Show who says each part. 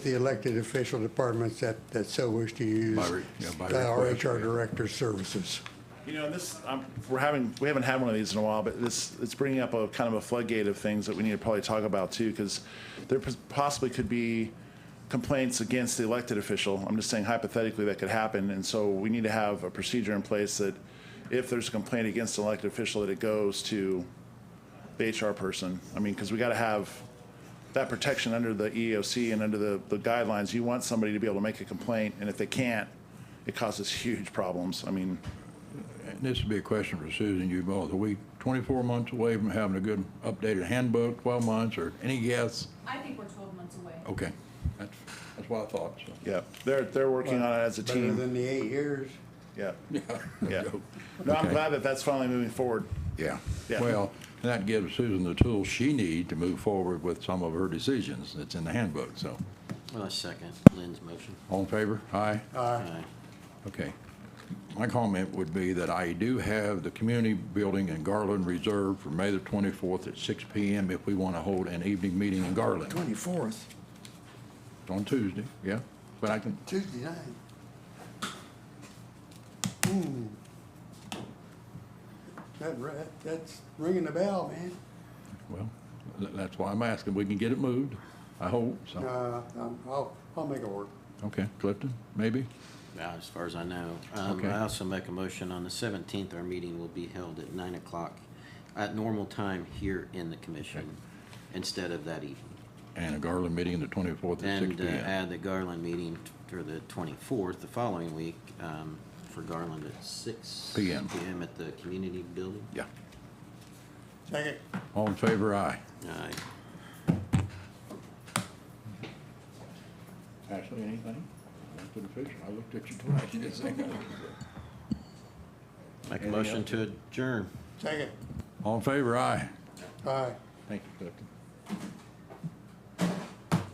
Speaker 1: the elected official departments that, that so wish to use
Speaker 2: By re- yeah, by
Speaker 1: the
Speaker 2: request,
Speaker 1: RHR
Speaker 2: yeah.
Speaker 1: director's services.
Speaker 3: You know, this, um, we're having, we haven't had one of these in a while, but this, it's bringing up a kind of a floodgate of things that we need to probably talk about too, because there pos- possibly could be complaints against the elected official. I'm just saying hypothetically that could happen, and so we need to have a procedure in place that if there's a complaint against an elected official, that it goes to the HR person. I mean, because we got to have that protection under the E EEOC and under the, the guidelines. You want somebody to be able to make a complaint, and if they can't, it causes huge problems. I mean,
Speaker 2: And This would be a question for Susan, you both. Are we 24 months away from having a good updated handbook, 12 months, or any guess?
Speaker 4: I think we're twelve months away.
Speaker 2: Okay, that's, that's what I thought, so.
Speaker 3: Yeah, they're, they're working on it as a
Speaker 1: Better
Speaker 3: team.
Speaker 1: than the eight years.
Speaker 3: Yeah, yeah.
Speaker 2: Yeah.
Speaker 3: No, I'm
Speaker 2: Okay.
Speaker 3: glad that that's finally moving forward.
Speaker 2: Yeah.
Speaker 3: Yeah.
Speaker 2: Well, and that gives Susan the tools she need to move forward with some of her decisions that's in the handbook, so.
Speaker 5: Well, I second Lynn's motion. Uh,
Speaker 2: All in favor? Aye?
Speaker 5: Aye.
Speaker 2: Okay. My comment would be that I do have the community building in Garland reserved for May the 24th at 6 PM if we want to hold an evening meeting in Garland.
Speaker 1: Twenty-fourth,
Speaker 2: It's On Tuesday, yeah? But I can,
Speaker 1: Tuesday night. Hmm. That, ri- that's ringing the bell, man.
Speaker 2: well, th- that's why I'm asking. We can get it moved, I hope, so.
Speaker 1: Uh, um, I'll, I'll make it work.
Speaker 2: Okay, Clifton, maybe?
Speaker 5: Now, as far as I know. Um,
Speaker 2: Okay.
Speaker 5: I also make a motion on the seventeenth, our meeting will be held at nine o'clock at normal time here in the commission instead of that evening.
Speaker 2: And a Garland meeting the 24th at 6
Speaker 5: And uh,
Speaker 2: PM.
Speaker 5: add the Garland meeting for the twenty-fourth, the following week, um, for Garland at six.
Speaker 2: PM.
Speaker 5: PM at the community building.
Speaker 2: Yeah.
Speaker 1: Second.
Speaker 2: All in favor, aye.
Speaker 5: Aye.
Speaker 2: Ashley, anything? To the fish, I looked at you twice.
Speaker 5: Make a
Speaker 2: Anything
Speaker 5: motion
Speaker 2: else?
Speaker 5: to adjourn.
Speaker 1: Second.
Speaker 2: All in favor, aye.
Speaker 1: Aye.
Speaker 2: Thank you, Clifton.